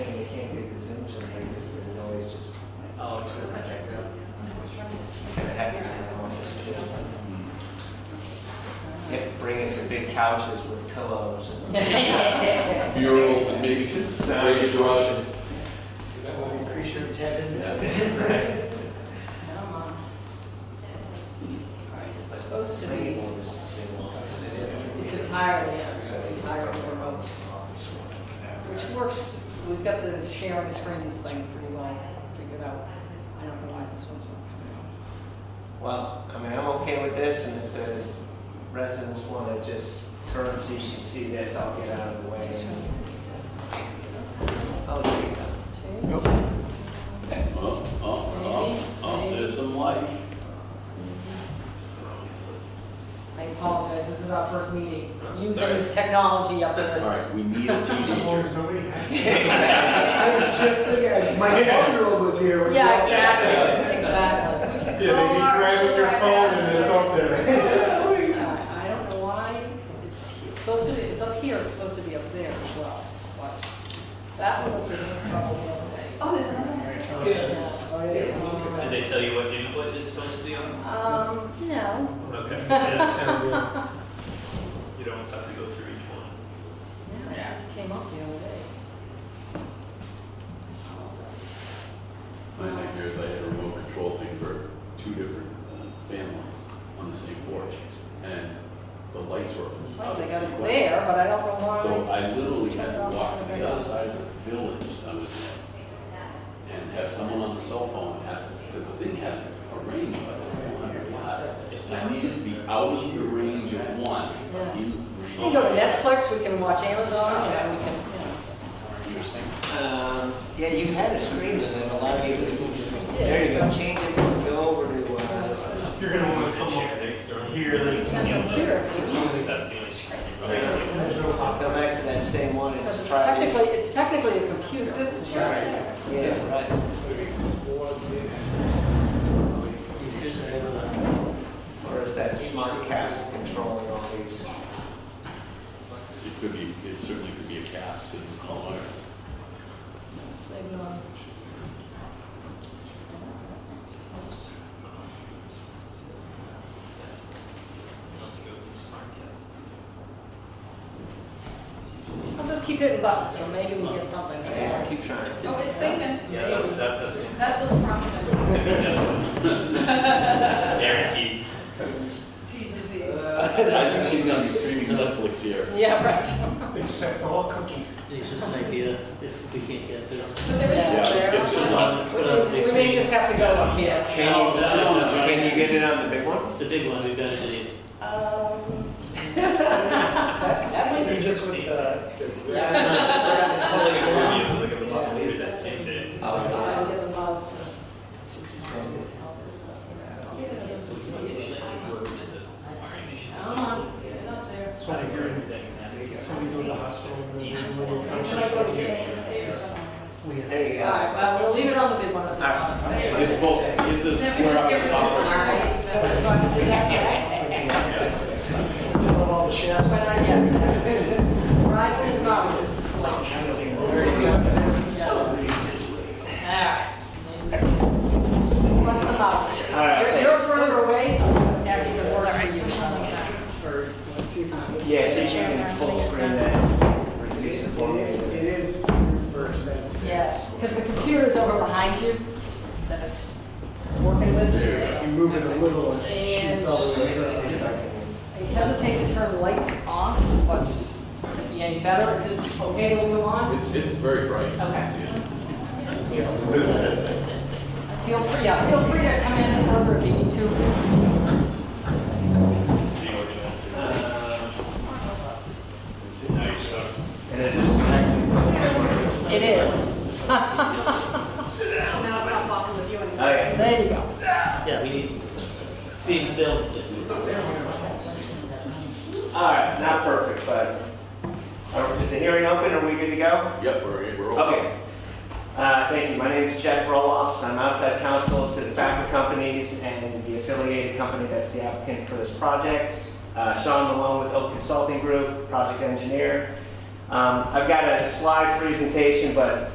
couches with pillows and Murals and big, big brushes. that will increase your attendance. It's supposed to be, it's entirely, entirely remote, which works, we've got the sharing screens thing pretty well figured out. I don't know why this one's not coming up. Well, I mean, I'm okay with this, and if the residents want to just turn so you can see this, I'll get out of the way. Oh, there you go. Oh, oh, oh, oh, there's some life. I apologize, this is our first meeting, using Sorry. this technology up All there. right, we need a teenager. I was just thinking, my four-year-old was here. when Yeah, we- exactly, exactly. Yeah, they can grab with your phone and it's up there. Uh, I I don't know why, it's, it's supposed to be, it's up here, it's supposed to be up there as well, but that one was the most trouble the other day. Oh, there's another. Yeah. Did they tell you what input it's supposed to be on? Um, no. Okay. Yeah, that sounds good. You don't always have to go through each one. No, it just came up the other day. My nightmare is I had a remote control thing for two different uh, families on the same porch, and the lights were It's out like they of got it sequence. there, but I don't know why. So I literally had to walk to the other side of the village, I was in, and have someone on the cell phone, have- because the thing had a range of like four hundred watts. And I needed to be out of the range of one. Yeah. in range. We can go to Netflix, we can watch Amazon, and we can, you Interesting. Um, Yeah, you had a screen that had a lot of people. did. There you go, change it, go over to, uh, know. You're gonna wanna come up here and It's on the computer. It's only- That's the only screen you really need. I'll come back to that same one and Because it's try these. technically, it's technically a computer. Yes. Yeah, right. Or is that smart cast controlling all these? It could be, it certainly could be a cast, because it's called ours. Signal. I'll just keep hitting buttons, so maybe we get something. Yeah, I keep trying. Oh, it's thinking. Yeah, that, that, that's gonna That looks promising. be Netflix. Guaranteed. T's disease. Uh, I think she's gonna be streaming Netflix here. Yeah, right. Except all cookies. It's just an idea, if we can't get this. But there is Yeah, one let's there. get this one. Let's put it on the We we next may meeting. just have to go up here. No, no, no, Can you get it on the big one? The big one, we've got to do. Um, That might be just with the, the- We'll be able to look at the lot later that same day. I'll Oh, give them mouse. uh, Come on, get it up there. that's what I do. That's what we do in the hospital. Should I go to the A or something? We have- There you All right, go. well, we'll leave it on the big one at the bottom. Give the full- give the Then we square just up get the rid top. of this one. That's a fun thing, guys. Some of all the But, chefs. uh, yeah, that's- Ryan and his mouse is like. Yes. All right. What's the mouse? All right. You're- You're further away, so that's even worse for you. Or, let's see if I can- Yeah, see, you can full screen that. It Reduce is, the volume. it is reverse, that's. Yeah, because the computer's over behind you, that it's working with. There You move it a little and it shoots all the way Just across. like in- I hesitate to turn lights off, but could be any better. Is it okay to move on? It's, it's very bright. Okay. See it? Feel free, yeah, feel free to come in further if you need to. Now you're stuck. And it's just connecting stuff. Oh, It is. Now it's not popular with you anymore. yeah. There you go. Yeah, we need, being filmed. All right, not perfect, but are- is the hearing open? Are we good to go? Yep, we're, we're. all- Okay. Uh, Thank you. My name is Jeff Roloffs. I'm outside counsel to the Thacker Companies and the affiliated company that's the applicant for this project. Uh, Sean Malone with Oak Consulting Group, project engineer. Um, I've got a slide presentation, but